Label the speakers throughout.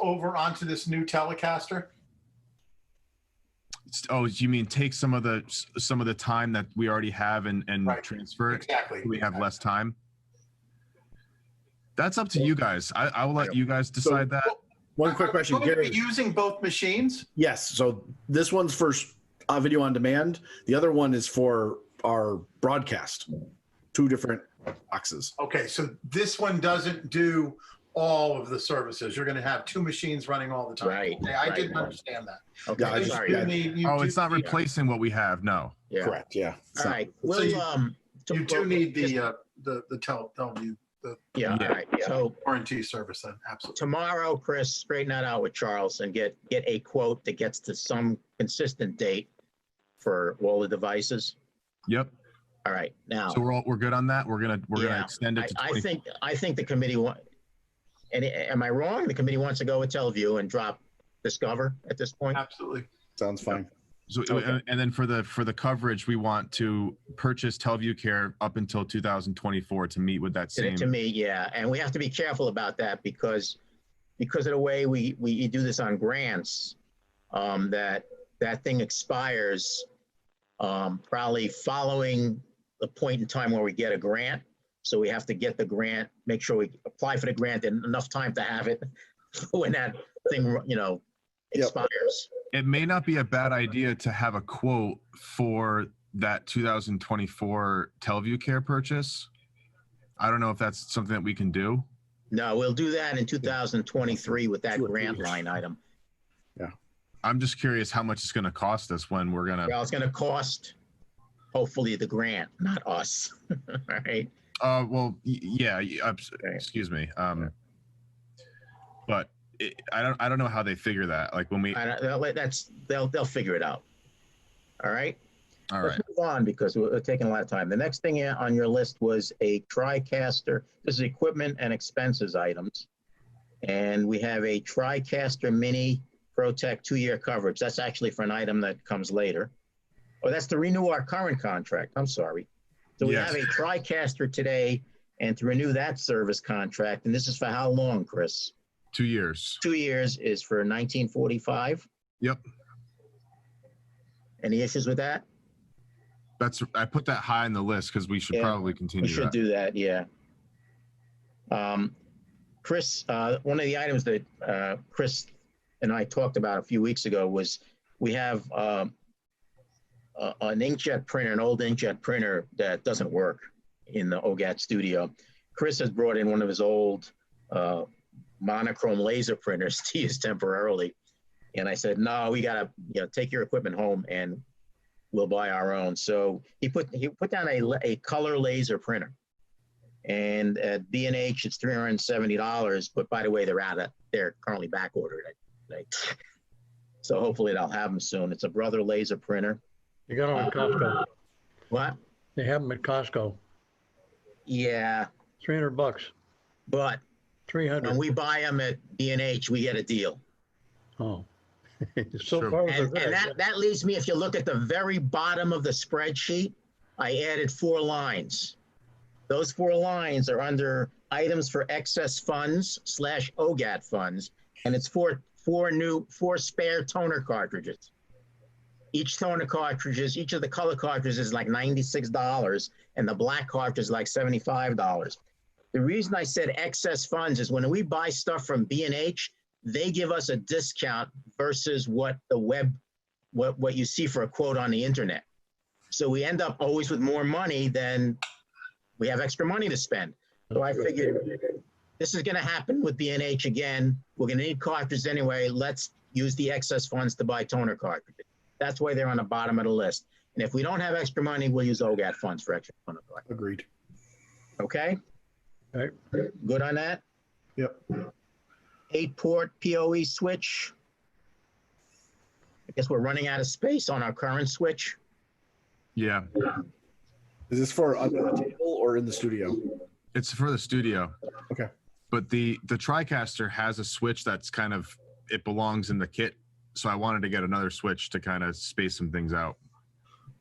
Speaker 1: over onto this new Telecaster?
Speaker 2: It's- Oh, you mean take some of the, s- some of the time that we already have and, and
Speaker 1: Right.
Speaker 2: transfer it?
Speaker 1: Exactly.
Speaker 2: so We have less time? That's up to you guys. I, I will let you guys decide that.
Speaker 3: One quick question,
Speaker 1: Are we gonna be
Speaker 3: Gary.
Speaker 1: Using both machines?
Speaker 3: Yes, so this one's for s- uh, video on demand. The other one is for our broadcast. Two different boxes.
Speaker 1: Okay, so this one doesn't do all of the services. You're gonna have two machines running all the time.
Speaker 4: Right,
Speaker 1: Okay, I
Speaker 4: right,
Speaker 1: didn't
Speaker 4: right.
Speaker 1: understand that.
Speaker 4: Okay,
Speaker 3: Yeah, I
Speaker 1: You
Speaker 3: just-
Speaker 4: sorry.
Speaker 1: do
Speaker 3: yeah.
Speaker 1: need- you
Speaker 2: Oh,
Speaker 1: do
Speaker 2: it's not
Speaker 1: need-
Speaker 2: replacing what we have. No.
Speaker 4: Yeah.
Speaker 3: Correct, yeah.
Speaker 4: All
Speaker 3: So-
Speaker 4: right.
Speaker 1: you-
Speaker 4: We'll, um. to-
Speaker 1: You do need the, uh, the, the tel, Teleview
Speaker 4: Yeah, all right. So
Speaker 1: warranty service then, absolutely.
Speaker 4: tomorrow, Chris, straighten that out with Charles and get, get a quote that gets to some consistent date for all the devices.
Speaker 2: Yep.
Speaker 4: All right, now.
Speaker 2: So we're all, we're good on that. We're gonna, we're gonna
Speaker 4: Yeah.
Speaker 2: extend
Speaker 4: I,
Speaker 2: it to
Speaker 4: I
Speaker 2: 20
Speaker 4: think, I think the committee wa, and a- am I wrong? The committee wants to go with Teleview and drop Discover at this point?
Speaker 1: Absolutely.
Speaker 3: Sounds fine.
Speaker 2: So,
Speaker 4: Okay.
Speaker 2: and- and then for the, for the coverage, we want to purchase Teleview Care up until 2024 to meet with that
Speaker 4: To,
Speaker 2: same.
Speaker 4: to me, yeah, and we have to be careful about that because, because of the way we, we do this on grants, um, that, that thing expires, um, probably following the point in time where we get a grant. So we have to get the grant, make sure we apply for the grant in enough time to have it when that thing, you know,
Speaker 3: Yep.
Speaker 4: expires.
Speaker 2: it may not be a bad idea to have a quote for that 2024 Teleview Care purchase. I don't know if that's something that we can do.
Speaker 4: No, we'll do that in 2023 with that
Speaker 3: Two or three
Speaker 4: grant
Speaker 3: years.
Speaker 4: line item.
Speaker 2: I'm just curious how much it's going to cost us when we're going to.
Speaker 4: Well, it's gonna cost, hopefully, the grant, not us, right?
Speaker 2: Uh, well, y- yeah. y- uh, s-
Speaker 4: Okay.
Speaker 2: Excuse me. Um, but it, I don't. I don't know how they figure that. Like when we.
Speaker 4: I don't, they'll let- that's, they'll, they'll figure it out. All right?
Speaker 2: All right.
Speaker 4: Let's move on because we're we're taking a lot of time. The next thing on your list was a TriCaster. This is equipment and expenses items. And we have a TriCaster Mini ProTech two-year coverage. That's actually for an item that comes later. Oh, that's to renew our current contract. I'm sorry. So we
Speaker 2: Yes.
Speaker 4: have a TriCaster today and to renew that service contract. And this is for how long, Chris?
Speaker 2: Two years.
Speaker 4: two years is for 1945.
Speaker 2: Yep.
Speaker 4: Any issues with that?
Speaker 2: That's. I put that high on the list because we should
Speaker 4: Yeah,
Speaker 2: probably
Speaker 4: We
Speaker 2: continue.
Speaker 4: should
Speaker 2: that.
Speaker 4: do that, yeah. Um, Chris, uh, one of the items that uh, Chris and I talked about a few weeks ago was we have um, a- an inkjet printer, an old inkjet printer that doesn't work in the OGAT studio. Chris has brought in one of his old uh, monochrome laser printers to use temporarily. And I said, no, we gotta, you know, take your equipment home and we'll buy our own. So he put, he put down a, la- a color laser printer. And at B and H, it's three hundred and seventy dollars, but by the way, they're out of, they're currently back ordered. So hopefully I'll have them soon. It's a Brother laser printer.
Speaker 5: You got them at Costco.
Speaker 4: What?
Speaker 5: They have them at Costco.
Speaker 4: Yeah,
Speaker 5: Three hundred bucks,
Speaker 4: but
Speaker 5: three
Speaker 4: when
Speaker 5: hundred.
Speaker 4: we buy them at B and H, we get a deal.
Speaker 5: Oh.
Speaker 2: Sure.
Speaker 5: So far,
Speaker 4: And,
Speaker 5: they're
Speaker 4: and
Speaker 5: good.
Speaker 4: that, that leaves me, if you look at the very bottom of the spreadsheet, I added four lines. Those four lines are under items for excess funds slash OGAT funds, and it's four, four new, four spare toner cartridges. Each toner cartridges, each of the color cartridges is like ninety-six dollars, and the black cartridge is like seventy-five dollars. The reason I said excess funds is when we buy stuff from B and H, they give us a discount versus what the web what what you see for a quote on the internet so we end up always with more money than we have extra money to spend so i figured this is going to happen with bnh again we're going to need cartridges anyway let's use the excess funds to buy toner cartridges that's why they're on the bottom of the list and if we don't have extra money we'll use ogat funds for extra toner cartridges
Speaker 3: Agreed.
Speaker 4: okay
Speaker 5: Right.
Speaker 4: good on that
Speaker 1: Yep.
Speaker 4: eight port PoE switch. I guess we're running out of space on our current switch.
Speaker 2: Yeah.
Speaker 3: Is this for under the table or in the studio?
Speaker 2: It's for the studio.
Speaker 3: Okay.
Speaker 2: But the the TriCaster has a switch that's kind of it belongs in the kit. So I wanted to get another switch to kind of space some things out.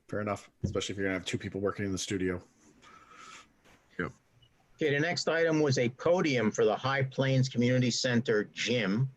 Speaker 3: Fair enough, especially if you're gonna have two people working in the studio.
Speaker 4: Okay, the next item was a podium for the High Plains Community Center gym.